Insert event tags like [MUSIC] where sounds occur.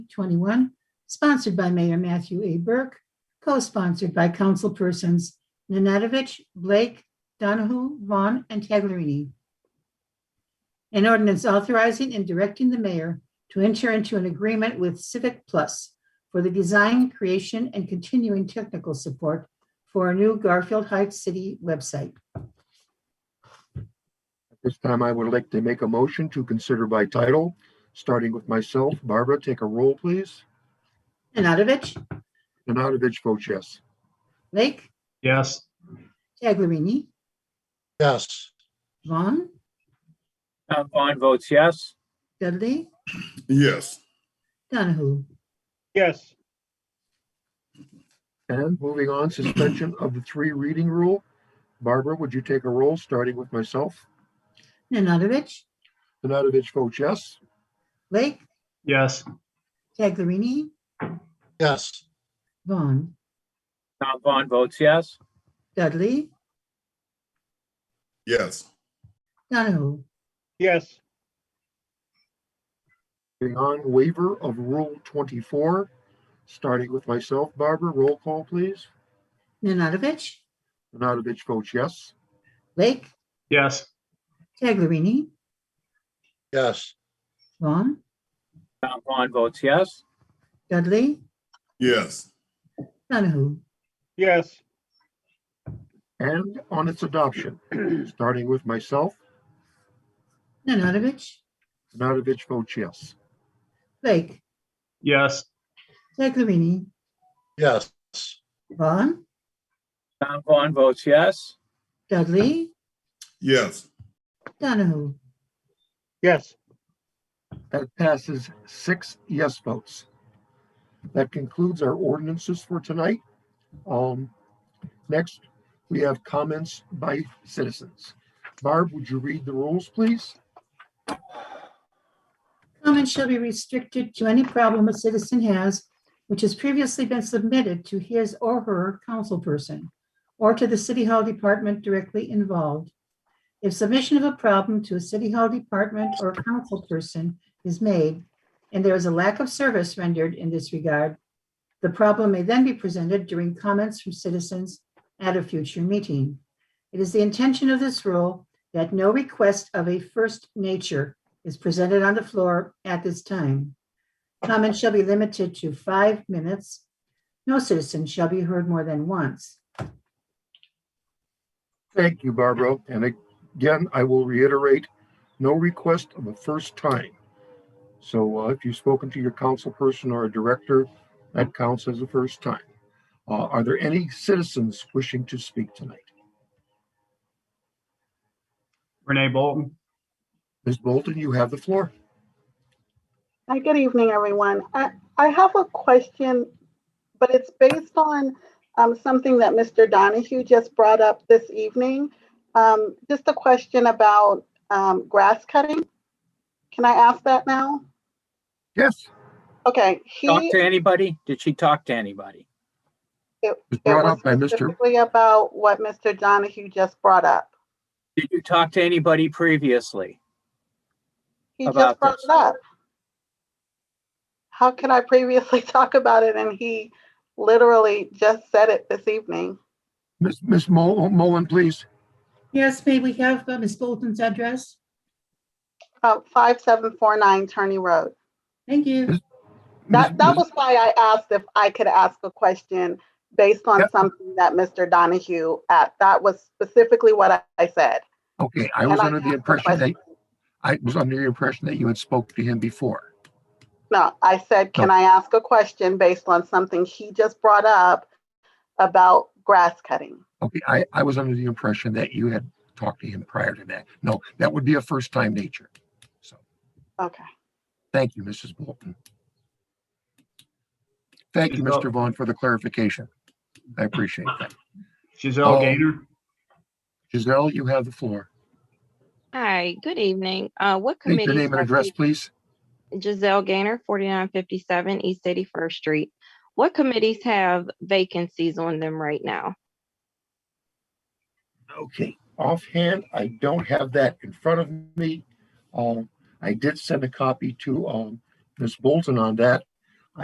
21, sponsored by Mayor Matthew A. Burke, co-sponsored by councilpersons Nanadovich, Blake, Donahue, Vaughn, and Taglerini. An ordinance authorizing and directing the mayor to enter into an agreement with Civic Plus for the design, creation, and continuing technical support for a new Garfield Heights City website. At this time, I would like to make a motion to consider by title, starting with myself. Barbara, take a roll, please. Nanadovich, Nanadovich votes yes. Blake, Yes. Taglerini, Yes. Vaughn, Tom Bond Uh, votes yes. Dudley, Yes. Donahue. Yes. And moving on, suspension of the three reading rule. Barbara, would you take a roll, starting with myself? Nanadovich, Nanadovich votes yes. Blake, Yes. Taglerini, Yes. Vaughn, Tom Bond Uh, votes yes. Dudley, Yes. Donahue. Yes. Moving on, waiver of Rule 24, starting with myself. Barbara, roll call, please. Nanadovich, Nanadovich votes yes. Blake, Yes. Taglerini, Yes. Vaughn, Tom Bond votes yes. Dudley, Yes. Donahue. Yes. And on its adoption, starting with myself. Nanadovich, Nanadovich votes yes. Blake, Yes. Taglerini, Yes. Vaughn, Tom Bond votes yes. Dudley, Yes. Donahue. Yes. That passes six yes votes. That concludes our ordinances for tonight. Um, next, we have comments by citizens. Barb, would you read the rules, please? Comments shall be restricted to any problem a citizen has which has previously been submitted to his or her councilperson or to the city hall department directly involved. If submission of a problem to a city hall department or councilperson is made and there is a lack of service rendered in this regard, the problem may then be presented during comments from citizens at a future meeting. It is the intention of this rule that no request of a first nature is presented on the floor at this time. Comments shall be limited to five minutes. No citizen shall be heard more than once. Thank you, Barbara. And again, I will reiterate, no request of a first time. So uh, if you've spoken to your council person or a director, that counts as a first time. Uh, Are there any citizens wishing to speak tonight? Renee Bolton. Ms. Bolton, you have the floor. Hi, good evening, everyone. I, I have a question, but it's based on um, something that Mr. Donahue just brought up this evening. Um, just a question about um, grass cutting. Can I ask that now? Yes. Okay, he Talk to anybody? Did she talk to anybody? was it brought was up by Mr. specifically about what Mr. Donahue just brought up. Did you talk to anybody previously? He About just brought this. it up. How can I previously [LAUGHS] talk about it and he literally just said it this evening? Ms. Ms. Mo- Mullen, please. Yes, may we have uh, Ms. Bolton's address? Uh, 5749 Turney Road. Thank you. That, Ms. that was why I asked if I could ask a question based on Yep. something that Mr. Donahue at, that was specifically what I- I said. Okay, I and was I under the asked a impression that, question. I was under the impression that you had spoke to him before. No, I said, can I ask a question based on something he just brought up about grass cutting? Okay, I, I was under the impression that you had talked to him prior to that. No, that would be a first time nature. So, Okay. thank you, Mrs. Bolton. Thank you, Mr. Vaughn, for the clarification. I appreciate that. Giselle Oh. Gaynor. Giselle, you have the floor. Hi, good evening. Uh, what Take committee? your name and address, please. Giselle Gainer, forty-nine fifty-seven East City First Street. What committees have vacancies on them right now? Okay, offhand, I don't have that in front of me. Um, I did send a copy to, um, Ms. Bolton on that.